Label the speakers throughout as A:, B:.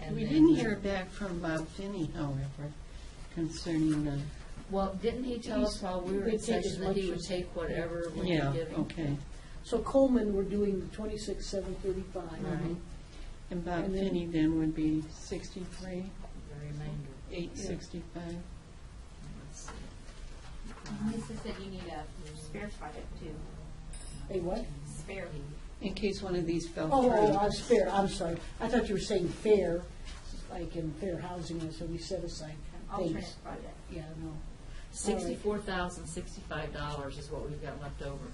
A: and
B: We
A: then
B: didn't
A: we-
B: hear back from Bob Finney, however, concerning the,
A: Well, didn't he tell us while we were
C: He'd
A: in
C: take as
A: session that he
C: much
A: would
C: as-
A: take whatever we
B: yeah,
A: were giving?
B: okay.
C: So Coleman, we're doing the twenty-six, seven
B: Right.
C: thirty-five.
B: And Bob
C: And then-
B: Finney then would be sixty-three,
A: The remainder.
B: eight sixty-five.
A: Let's see.
D: Lisa said you need a spare project too,
C: Hey, what?
D: spare.
B: In case one of these fell
C: Oh, oh,
B: through.
C: I'm fair, I'm sorry. I thought you were saying fair, like in fair housing, and so we set aside things.
D: alternate project.
C: Yeah, no.
A: Sixty-four thousand, sixty-five dollars is what we've got left over.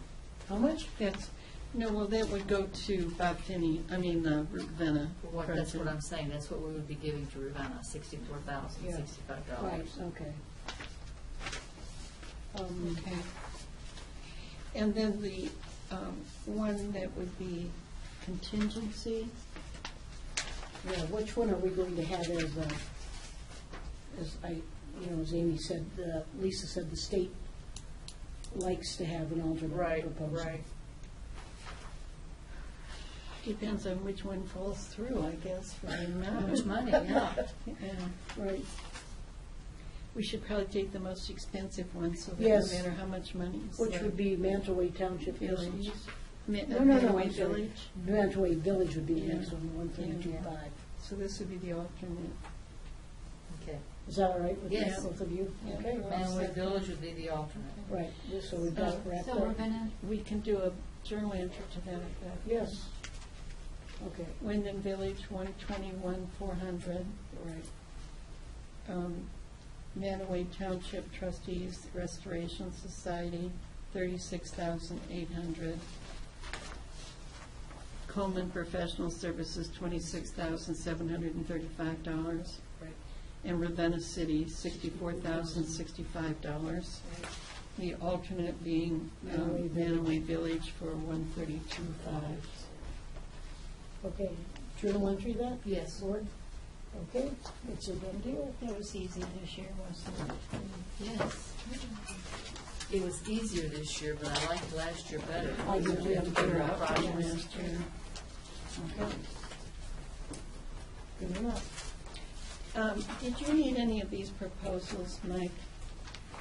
C: How much?
B: That's, no, well, that would go to Bob Finney, I mean, uh, Ravenna.
A: What, that's what
B: President.
A: I'm saying, that's what we would be giving to Ravenna, sixty-four thousand,
C: Yeah.
A: sixty-five
C: Right,
A: dollars.
C: okay. Um,
B: Okay. And then the um, one that would be contingency,
C: Yeah, which one are we going to have as, uh, as I, you know, as Amy said, uh, Lisa said, the state likes to have an alternate proposal.
B: depends on which one falls through, I guess, for the
A: How much
B: amount.
A: money, yeah.
B: Yeah.
C: Right,
B: We should probably take the most expensive one, so that no
C: Yes.
B: matter how much money. is
C: which
B: there.
C: would be Mantaway Township
B: Village.
C: Village.
B: Ma-
C: No, no, no,
B: Manaway
C: I'm sorry.
B: Village.
C: Mantaway Village would be the next
B: Yeah.
C: one, one thirty-two five.
B: So this would be the alternate.
A: Okay.
C: Is that all right with you,
A: Yes.
C: both of you? Okay.
A: Manaway Village would be the alternate.
C: Right, just so we've got it wrapped
D: So we're
C: up.
D: gonna,
B: We can do a journal entry to that effect.
C: Yes. Okay,
B: Wyndham Village, one twenty-one, four hundred.
C: right.
B: um, Manaway Township Trustees Restoration Society, thirty-six thousand eight hundred. Coleman Professional Services, twenty-six thousand seven hundred and thirty-five dollars.
C: Right.
B: And Ravenna City, sixty-four thousand sixty-five dollars. The alternate being um,
C: Manaway Village.
B: Manaway Village for one thirty-two five.
C: Okay, journal entry that?
A: Yes.
C: Board? Okay, it's a done deal.
E: That was easy this year, wasn't it?
A: Yes. It was easier this year, but I liked last year better.
C: I Oh, did, we had to figure out
A: Projects.
C: Okay. Good enough.
B: Um, Did you need any of these proposals, Mike?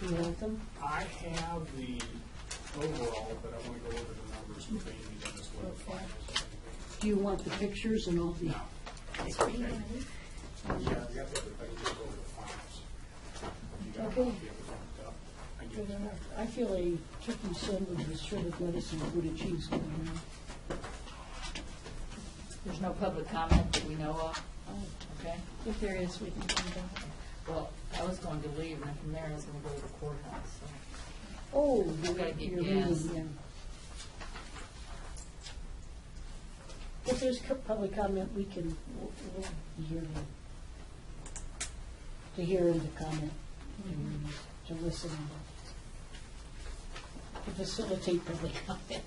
C: You want them?
F: I have the overall, but I want to go over the numbers with Amy and this one.
C: Okay. Do you want the pictures and all the?
F: That's okay. Yeah, you have the other thing, just go over the finals. You got a copy
C: Okay.
F: of it marked up. I get
C: Good
F: it.
C: enough. I feel a turkey sandwich with shredded lettuce and Buddha cheese going on.
A: There's no public comment that we know of, okay?
B: If there is, we can come back.
A: Well, I was going to leave, and from there I was gonna go to the courthouse, so.
C: Oh,
A: gotta get
C: you're
A: gas.
C: reading, yeah. If there's co- public comment, we can, we'll we'll be here to- to hear and to comment, and to listen, and to facilitate public comment.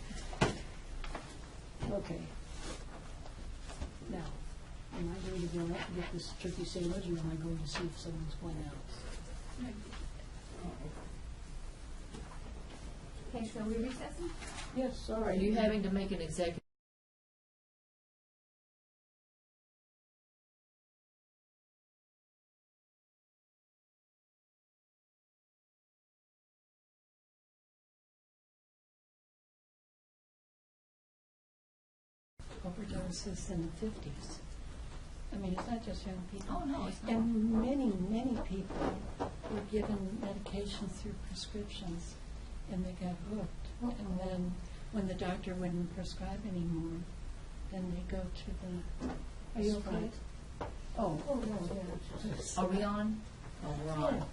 C: Okay. Now, am I going to go out and get this turkey sandwich, or am I going to see if someone's going out?
D: okay, so we recessing?
C: Yes, all
A: Are
C: right.
A: you having to make an executive
B: overdoses in the 50s. I mean, it's not just young people.
A: Oh, no, it's not.
B: And many, many people were given medications through prescriptions, and they got hooked. And then, when the doctor wouldn't prescribe anymore, then they go to the... Are you okay?
C: Sprite. Oh.
A: Are we on? Oh, we're on.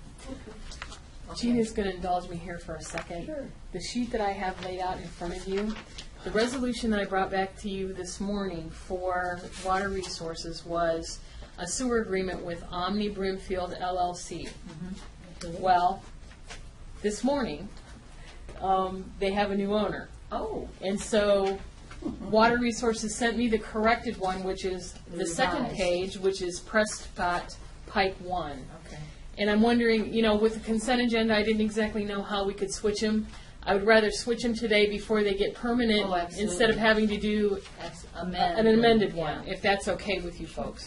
G: Gina's going to indulge me here for a second.
C: Sure.
G: The sheet that I have laid out in front of you, the resolution that I brought back to you this morning for water resources was a sewer agreement with Omni Brimfield LLC. Well, this morning, um, they have a new owner.
A: Oh,
G: And so Water Resources sent me the corrected one, which is the second
A: Revised.
G: page, which is Prescott Pike One.
A: okay.
G: And I'm wondering, you know, with the consent agenda, I didn't exactly know how we could switch them. I would rather switch them today before they get permanent,
A: Oh, absolutely.
G: instead of having to do
A: That's
G: an
A: amended.
G: amended
A: Yeah.
G: one, if that's okay with you folks.